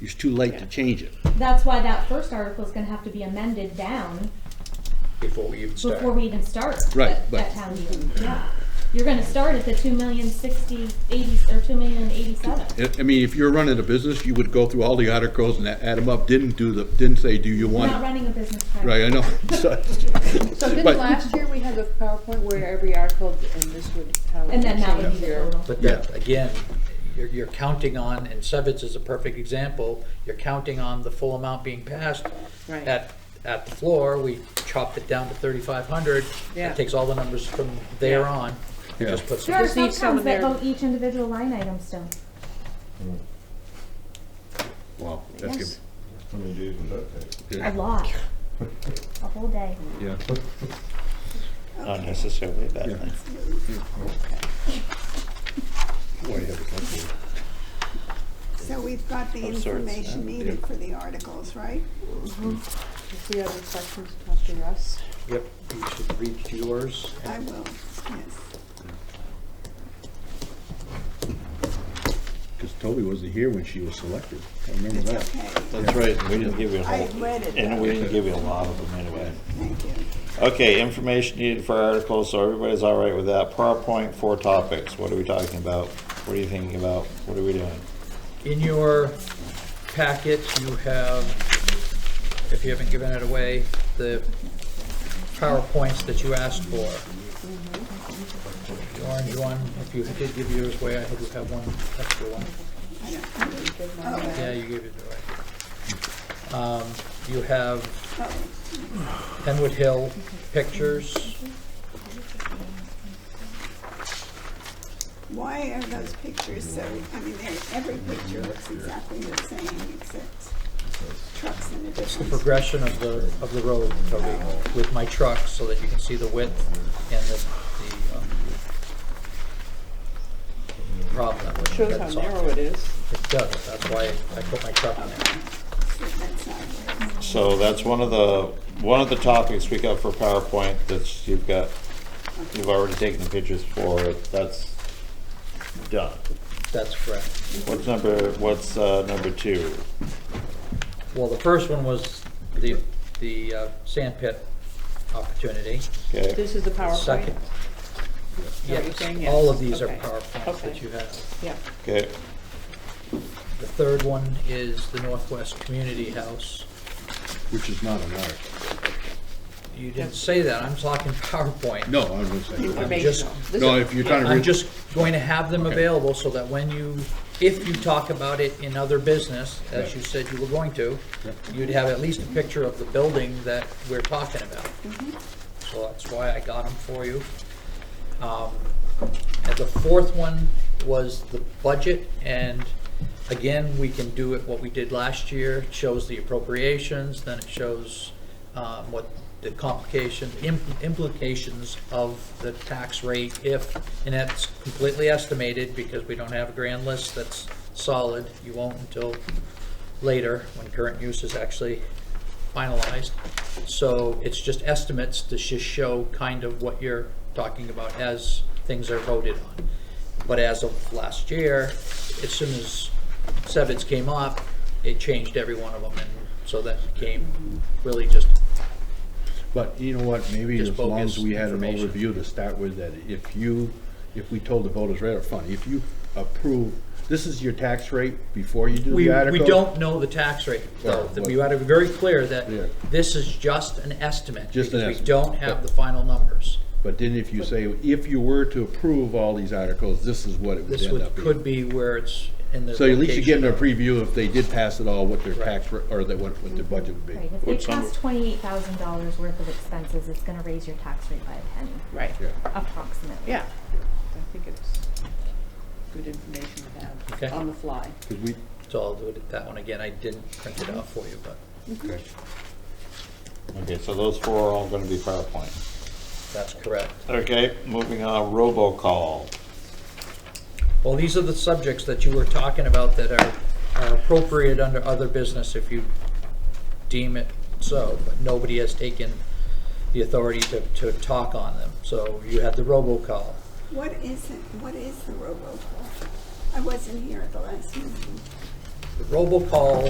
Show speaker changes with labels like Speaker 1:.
Speaker 1: it's too late to change it.
Speaker 2: That's why that first article is gonna have to be amended down
Speaker 3: before we even start.
Speaker 2: before we even start.
Speaker 1: Right,
Speaker 2: at-
Speaker 1: but-
Speaker 2: At town meeting, yeah. You're gonna start at the two million sixty, eighty, or two million eighty-seven.
Speaker 1: I- I mean, if you're running a business, you would go through all the articles and add them up, didn't do the, didn't say, do you
Speaker 2: We're
Speaker 1: want
Speaker 2: not
Speaker 1: it?
Speaker 2: running a business practice.
Speaker 1: Right, I know. So-
Speaker 4: So didn't
Speaker 1: But-
Speaker 4: last year we have a PowerPoint where every article and this would how it
Speaker 2: And then that would be
Speaker 4: change
Speaker 2: the
Speaker 4: your
Speaker 2: total.
Speaker 3: But that, again, you're, you're counting on, and Sevitz is a perfect example, you're counting on the full amount being passed.
Speaker 4: Right.
Speaker 3: At, at the floor, we chopped it down to thirty-five hundred.
Speaker 4: Yeah.
Speaker 3: It takes all the numbers from there on, and just
Speaker 1: Yeah.
Speaker 3: puts.
Speaker 2: There are
Speaker 4: Just
Speaker 2: some
Speaker 4: need
Speaker 2: towns
Speaker 4: someone
Speaker 2: that
Speaker 4: there.
Speaker 2: vote each individual line item still.
Speaker 1: Wow, that's good.
Speaker 2: Yes,
Speaker 5: How many days would that take?
Speaker 2: a lot. A whole day.
Speaker 1: Yeah.
Speaker 6: Not necessarily a bad
Speaker 1: Yeah.
Speaker 6: thing.
Speaker 1: Why you have a company?
Speaker 7: So we've got the
Speaker 6: Of sorts,
Speaker 7: information
Speaker 6: yeah.
Speaker 7: needed for the articles, right?
Speaker 4: If you have any questions, talk to Russ.
Speaker 3: Yep, you should read yours.
Speaker 7: I will, yes.
Speaker 1: Because Toby wasn't here when she was selected. I remember
Speaker 7: It's
Speaker 1: that.
Speaker 7: okay.
Speaker 6: That's right, we didn't give you a
Speaker 7: I
Speaker 6: whole,
Speaker 7: read it,
Speaker 6: and
Speaker 7: though.
Speaker 6: we didn't give you a lot of them anyway.
Speaker 7: Thank you.
Speaker 6: Okay, information needed for articles, so everybody's all right with that. PowerPoint, four topics, what are we talking about? What are you thinking about? What are we doing?
Speaker 3: In your packet, you have, if you haven't given it away, the PowerPoints that you asked for. The orange one, if you did give yours away, I hope you have one extra one. Yeah, you gave it away. Um, You have Penwood Hill pictures.
Speaker 7: Why are those pictures so, I mean, they're- every picture looks exactly the same except trucks in a
Speaker 3: It's the
Speaker 7: different.
Speaker 3: progression of the, of the road, Toby, with my truck, so that you can see the width and the, the, um, problem that was.
Speaker 4: Shows how narrow it is.
Speaker 3: It does, that's why I put my truck in there.
Speaker 7: That's not right.
Speaker 6: So that's one of the, one of the topics we got for PowerPoint that's, you've got, you've already taken the pictures for, it. that's done.
Speaker 3: That's correct.
Speaker 6: What's number, what's, uh, number two?
Speaker 3: Well, the first one was the, the uh, sand pit opportunity.
Speaker 6: Okay,
Speaker 4: This is the PowerPoint.
Speaker 3: Second.
Speaker 4: what you're saying?
Speaker 3: Yes,
Speaker 4: Yes.
Speaker 3: all of these are
Speaker 4: Okay.
Speaker 3: PowerPoints that
Speaker 4: Okay.
Speaker 3: you have.
Speaker 4: Yeah.
Speaker 6: okay,
Speaker 3: The third one is the Northwest Community House.
Speaker 1: Which is not an article.
Speaker 3: You didn't say that, I'm talking PowerPoint.
Speaker 1: No, I was saying.
Speaker 3: I'm just,
Speaker 4: Informational. This
Speaker 1: No,
Speaker 4: is-
Speaker 1: if you're trying to.
Speaker 3: I'm
Speaker 1: read-
Speaker 3: just going to have them available so that when you, if you talk about it in other business, as you said you were going to, you'd have at least a picture of the building that we're talking about. So that's why I got them for you. Um, And the fourth one was the budget, and again, we can do it what we did last year. It shows the appropriations, then it shows um, what the complication, im- implications of the tax rate if, and that's completely estimated because we don't have a grand list that's solid. You won't until later, when current use is actually finalized. So it's just estimates to just show kind of what you're talking about as things are voted on. But as of last year, as soon as Sevitz came up, it changed every one of them, and so that became really just,
Speaker 1: But you know what, maybe
Speaker 3: Just
Speaker 1: as long as
Speaker 3: bogus
Speaker 1: we had an
Speaker 3: information.
Speaker 1: overview to start with, that if you, if we told the voters right up front, if you approve, this is your tax rate before you do
Speaker 3: we,
Speaker 1: the article.
Speaker 3: we don't know the tax rate, though.
Speaker 1: Yeah,
Speaker 3: That
Speaker 1: but-
Speaker 3: We ought to be very clear that
Speaker 1: Yeah.
Speaker 3: this is just an estimate.
Speaker 1: Just an estimate,
Speaker 3: because We don't
Speaker 1: yeah.
Speaker 3: have the final numbers.
Speaker 1: But then if you say, if you were to approve all these articles, this is what it would
Speaker 3: This
Speaker 1: end
Speaker 3: would,
Speaker 1: up
Speaker 3: could
Speaker 1: being.
Speaker 3: be where it's in the
Speaker 1: So at least you're
Speaker 3: location
Speaker 1: getting a
Speaker 3: of-
Speaker 1: preview if they did pass it all, what their
Speaker 3: Right.
Speaker 1: tax, ra- or that, what, what their budget would be.
Speaker 2: Right, if they
Speaker 6: What's number-
Speaker 2: pass twenty-eight thousand dollars worth of expenses, it's gonna raise your tax rate by a penny,
Speaker 4: Right,
Speaker 1: Yeah.
Speaker 2: approximately.
Speaker 4: yeah. I think it's good information to
Speaker 3: Okay.
Speaker 4: have on the fly.
Speaker 1: Because we,
Speaker 3: So I'll do it, that one again, I didn't print it out for you, but
Speaker 6: okay, so those four are all gonna be PowerPoint.
Speaker 3: that's correct.
Speaker 6: Okay, moving on, robocall.
Speaker 3: Well, these are the subjects that you were talking about that are are appropriate under other business if you deem it so, but nobody has taken the authority to, to talk on them. So you had the robocall.
Speaker 7: What is it, what is the robocall? I wasn't here at the last meeting.
Speaker 3: The robocall